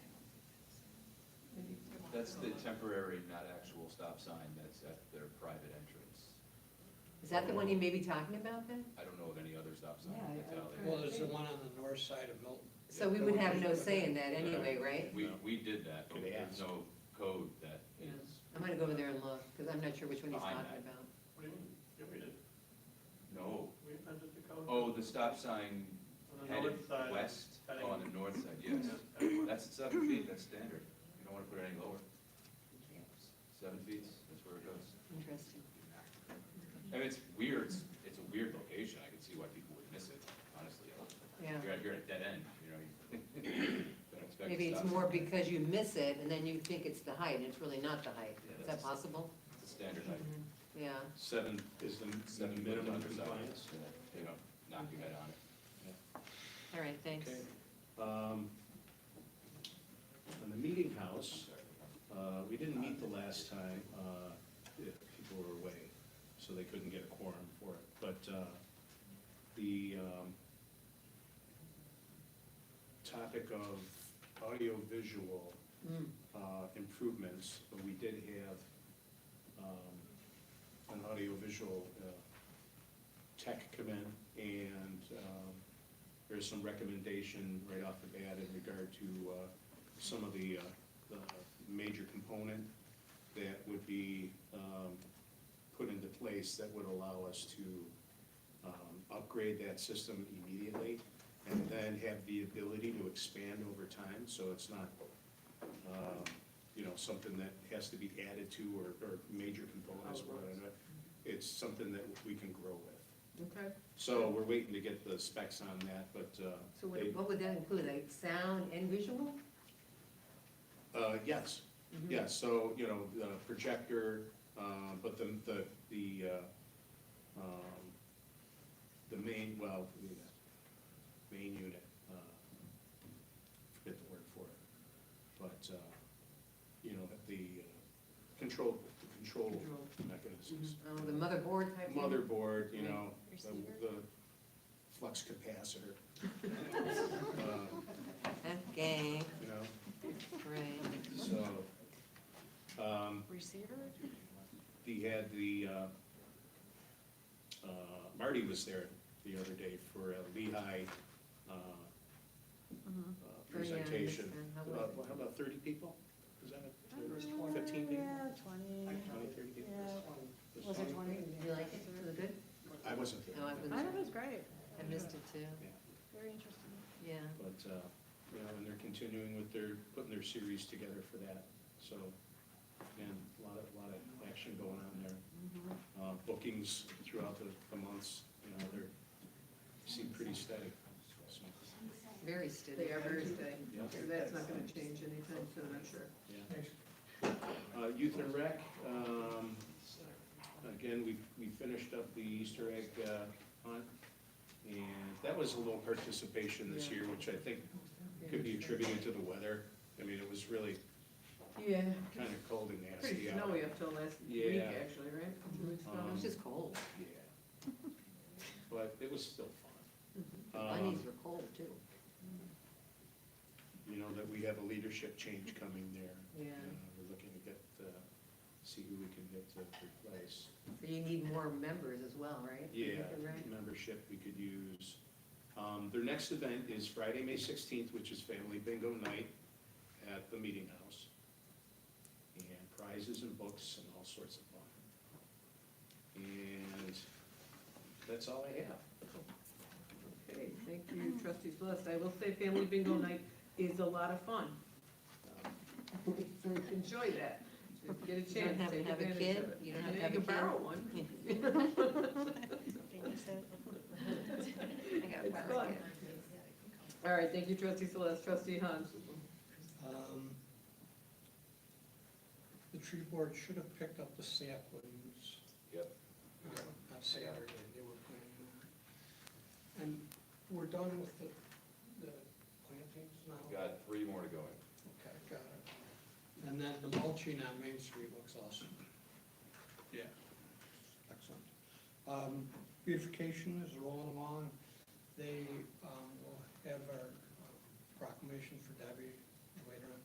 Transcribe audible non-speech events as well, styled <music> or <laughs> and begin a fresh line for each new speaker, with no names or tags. That's the temporary, not actual stop sign that's at their private entrance.
Is that the one you may be talking about then?
I don't know of any other stop sign
Yeah, I-
that's out
Well,
there.
there's the one on the north side of Milton.
So we would have no say in that anyway, right?
We, we did that, but
Could they
there's
ask?
no code that is,
I'm gonna go over there and look, because I'm not sure which one he's
Behind
talking
that.
about.
What do you mean? Yeah, we did.
no.
We amended the code.
Oh, the stop sign
On the
headed
north side.
west,
heading-
oh, on the north side, yes.
Yeah.
That's seven feet, that's standard. You don't wanna put it any lower. Seven feet, that's where it goes.
Interesting.
And it's weird, it's, it's a weird location, I can see why people would miss it, honestly.
Yeah.
You're at, you're at a dead end, you know, you
<laughs>
don't expect. a
Maybe it's
stop sign.
more because you miss it and then you think it's the height and it's really not the height.
Yeah,
Is that
that's-
possible?
It's a standard, like,
Yeah.
Seven is the
seven
m-
foot
minimum
underside,
compliance.
yeah, you know, knock your head on it.
All right, thanks.
Okay. Um, On the meeting house, uh, we didn't meet the last time, uh, if people were away, so they couldn't get a quorum for it. But uh, the um, topic of audiovisual
Mm,
uh, improvements, but we did have um, an audiovisual uh, tech come in, and um, there's some recommendation right off the bat in regard to uh, some of the, uh, the major component that would be um, put into place that would allow us to um, upgrade that system immediately, and then have the ability to expand over time, so it's not um, you know, something that has to be added to or, or major components. or whatever. It's something that we can grow with.
Okay.
So we're waiting to get the specs on that, but, uh.
So what,
they-
what would that include, like sound and visual?
Uh, yes,
Mhm.
yes, so, you know, the projector, uh, but the, the, the, uh, um, the main, well, the main unit, uh, forget the word for it, but, uh, you know, the uh, control, the control
Control.
mechanisms.
Oh, the motherboard type? thing?
Motherboard, you know, the,
Receiver.
the flux capacitor. Uh,
Okay,
You know,
right.
so, um,
Receiver?
He had the, uh, uh, Marty was there the other day for a Lehigh uh,
Mm-hmm.
uh, presentation.
understand. How was
About,
it?
well, how about thirty people? Was that a- fifteen people?
Uh, Yeah, twenty.
Like 20, 30 people?
Yeah. Was it twenty?
Did you like it? Was it good?
I wasn't there.
No, I
I
wasn't.
thought it was great,
I missed it too,
Yeah.
very interesting.
yeah.
But, uh, you know, and they're continuing with their, putting their series together for that, so, and a lot of, lot of action going on there. Uh, Bookings throughout the, the months, you know, they're, seem pretty steady, so,
Very steady.
They are very steady.
yeah.
So That's not gonna change anytime soon, I'm sure.
Uh, Youth and Rec, um, again, we, we finished up the Easter egg uh, hunt, and that was a little participation this year, which I think could be attributed to the weather. I mean, it was really
Yeah.
kind of cold and nasty
Pretty
out.
snowy up till last week,
Yeah. um,
actually, right? Two weeks ago.
It was just cold.
Yeah. But it was still
Mm-hmm.
fun.
Bunnies
Um,
were cold too.
You know, that we have a leadership change coming there.
Yeah.
Uh, We're looking to get, uh, see who we can get to replace.
So you need more members as well, right?
Yeah,
Right.
membership we could use. Um, Their next event is Friday, May 16th, which is Family Bingo Night at the Meeting House. And prizes and books and all sorts of fun. And that's all I have.
Okay, thank you, trustees List. I will say Family Bingo Night is a lot of fun. Enjoy that. Just Get a
You don't
chance,
have
take
to have a
advantage of it.
kid, you don't have to have a
You can borrow
kid.
one.
I got
It's
five
fun.
kids.
All right, thank you, trustee Celeste. Trustee Hans?
Um, The tree board should have picked up the saplings
Yep,
on Saturday, they were planting them. And we're done with the, the plantings now?
got three more to go in.
Okay, got it. And then the mulching on Main Street looks awesome. Yeah. Excellent. Um, beautification is rolling along. They, um, will have our uh, proclamation for Debbie